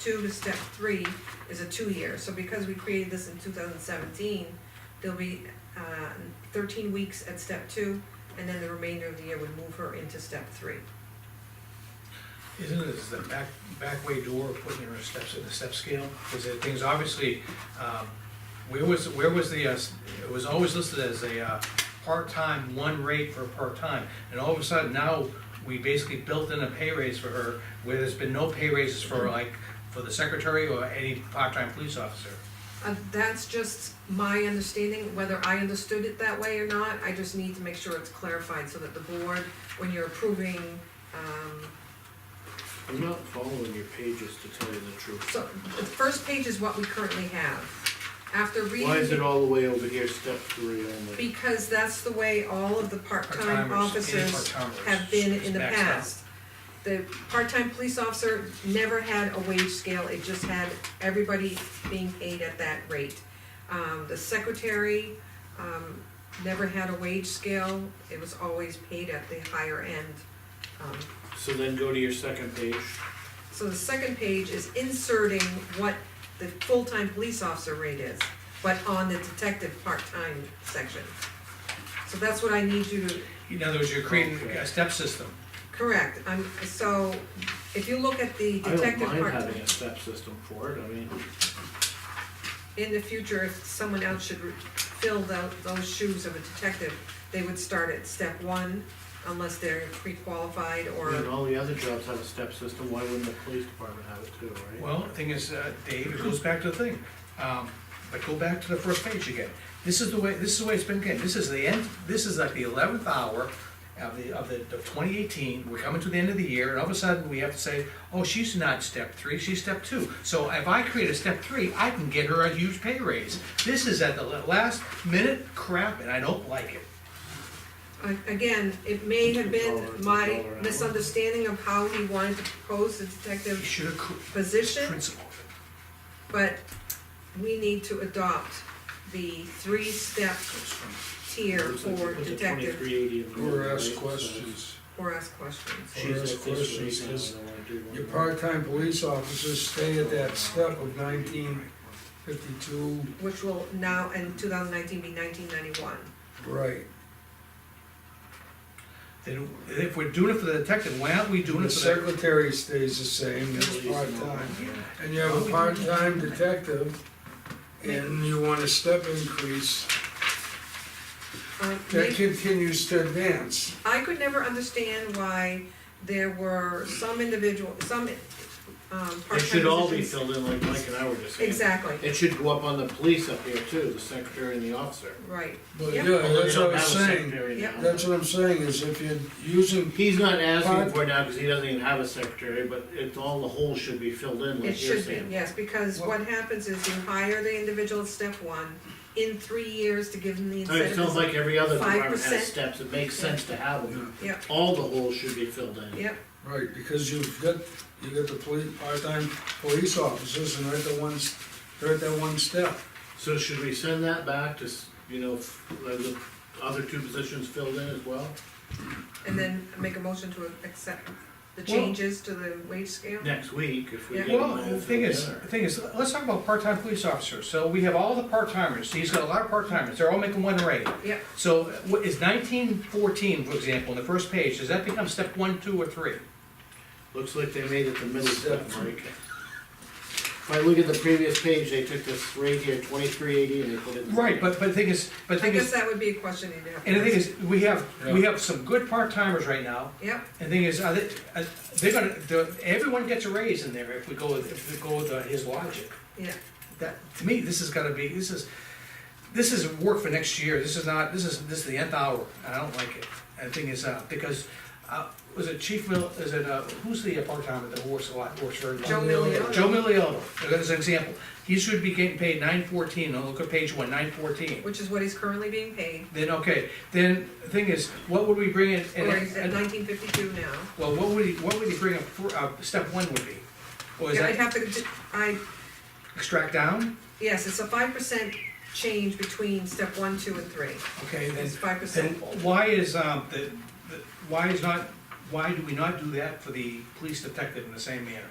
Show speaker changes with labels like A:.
A: two to step three is a two-year. So because we created this in two thousand seventeen, there'll be, uh, thirteen weeks at step two, and then the remainder of the year would move her into step three.
B: Isn't it, is the back, back way door putting her steps in the step scale? Because the things, obviously, um, where was, where was the, uh, s- it was always listed as a, uh, part-time, one rate for part-time. And all of a sudden now, we basically built in a pay raise for her, where there's been no pay raises for like, for the secretary or any part-time police officer.
A: Uh, that's just my understanding, whether I understood it that way or not, I just need to make sure it's clarified so that the board, when you're approving, um,
C: I'm not following your pages to tell you the truth.
A: so, the first page is what we currently have. After reading.
C: Why is it all the way over here, step three only?
A: Because that's the way all of the part-time
B: Part-timers, any
A: officers
B: part-timers
A: have been
B: is
A: in the
B: maxed out.
A: past. The part-time police officer never had a wage scale, it just had everybody being paid at that rate. Um, the secretary, um, never had a wage scale, it was always paid at the higher end. Um,
C: So then go to your second page.
A: So the second page is inserting what the full-time police officer rate is, but on the detective part-time section. So that's what I need you to
B: In other words, you're creating
C: Okay.
B: a step system.
A: correct. I'm, so if you look at the
C: I don't
A: detective
C: mind
A: part-time,
C: having a step system for it, I mean,
A: in the future, if someone else should re- fill tho- those shoes of a detective, they would start at step one unless they're pre-qualified
C: and
A: or,
C: all the other jobs have a step system, why wouldn't the police department have it too, right?
B: Well, the thing is, uh, Dave, it goes back to the thing, um, but go back to the first page again. This is the way, this is the way it's been getting, this is the end, this is like the eleventh hour of the, of the, of twenty eighteen, we're coming to the end of the year, and all of a sudden, we have to say, oh, she's not step three, she's step two. So if I create a step three, I can get her a huge pay raise. This is at the la- last minute crap, and I don't like it.
A: A- again, it may have
C: Dollar-
A: been my
C: dollar hour.
A: misunderstanding of how he wanted to propose the
B: You
A: detective
B: should have
A: position.
B: principled
A: But we need to adopt the three-step
B: it. Goes from-
A: tier
C: Looks like you
A: for
C: put the
A: detective
C: 2380 in there,
D: Or ask
C: right? So
D: questions.
A: or ask questions.
C: She's
D: Or
C: at
D: ask
C: this rate
D: questions,
C: now,
D: 'cause
C: and I do want
D: Your
C: to-
D: part-time police officers stay at that step of nineteen fifty-two,
A: Which will now, in two thousand nineteen, be nineteen ninety-one.
D: right.
B: Then, if we're doing it for the detective, why aren't we doing
D: The
B: it for the?
D: secretary stays the
C: At
D: same, it's
C: least now,
D: part-time.
C: yeah.
D: And you have a part-time detective, and you want a step increase,
A: Um,
D: that
A: maybe-
D: continues to advance.
A: I could never understand why there were some individual, some, um, part-time
C: It should all be
A: positions-
C: filled in like Mike and I were just saying.
A: Exactly,
C: It should go up on the police up here too, the secretary and the officer.
A: right.
D: But
A: Yep.
D: yeah,
B: Oh,
C: Although they
D: that's
C: don't
D: what I'm
C: have a
D: saying,
C: secretary
A: Yep.
C: now.
D: that's what I'm saying, is if you're using,
C: He's not asking
D: Part-
C: for it now because he doesn't even have a secretary, but it's all the holes should be filled in
A: It
C: like you're
A: should be,
C: saying.
A: yes, because what happens is you hire the individual at step one, in three years to give them the
C: I mean, It
A: incentive.
C: sounds like every other department
A: 5%.
C: has steps, it makes sense to have them.
A: Yep,
C: All the holes should be filled in.
A: yep,
D: right, because you've got, you got the police, part-time police officers, and they're at the ones, they're at that one step.
C: So should we send that back to, s- you know, f- like the other two positions filled in as well?
A: and then make a motion to accept the
B: Well-
A: changes to the wage scale?
C: Next week, if we
A: Yeah.
C: get them all
B: Well, the
C: filled
B: thing
C: in.
B: is, the thing is, let's talk about part-time police officers. So we have all the part-timers, he's got a lot of part-timers, they're all making one rate.
A: Yep,
B: So what is nineteen fourteen, for example, on the first page, does that become step one, two, or three?
C: Looks like they made it the middle step, Mike. If I look at the previous page, they took this right here, twenty-three eighty, and they put it. in-
B: Right, but, but the thing is, but the
A: I
B: thing
A: guess
B: is,
A: that would be a question you'd have. to
B: and the thing
A: ask.
B: is, we have, we have some good part-timers right now.
A: Yep,
B: And the thing is, are they, are- they're gonna, the, everyone gets a raise in there if we go with, if we go with uh, his logic.
A: yeah,
B: That, to me, this is gonna be, this is, this is work for next year, this is not, this is, this is the nth hour, and I don't like it. And the thing is, uh, because, uh, was it Chief Mill, is it, uh, who's the part-timer that works a lot, works very
A: Joe
B: long?
A: Milliotto.
B: Joe Milliotto, as an example, he should be getting paid nine fourteen, look at page one, nine fourteen.
A: which is what he's currently being paid,
B: Then, okay, then, the thing is, what would we bring in? and-
A: or he's at nineteen fifty-two now.
B: Well, what would he, what would he bring up, for- uh, step one would be? Or Oh, is
A: Yeah, I'd have
B: that
A: to, d- I,
B: extract down?
A: yes, it's a five percent change between step one, two, and three.
B: Okay, then,
A: It's five
B: then
A: percent.
B: why is, um, the, the, why is not, why do we not do that for the police detective in the same manner?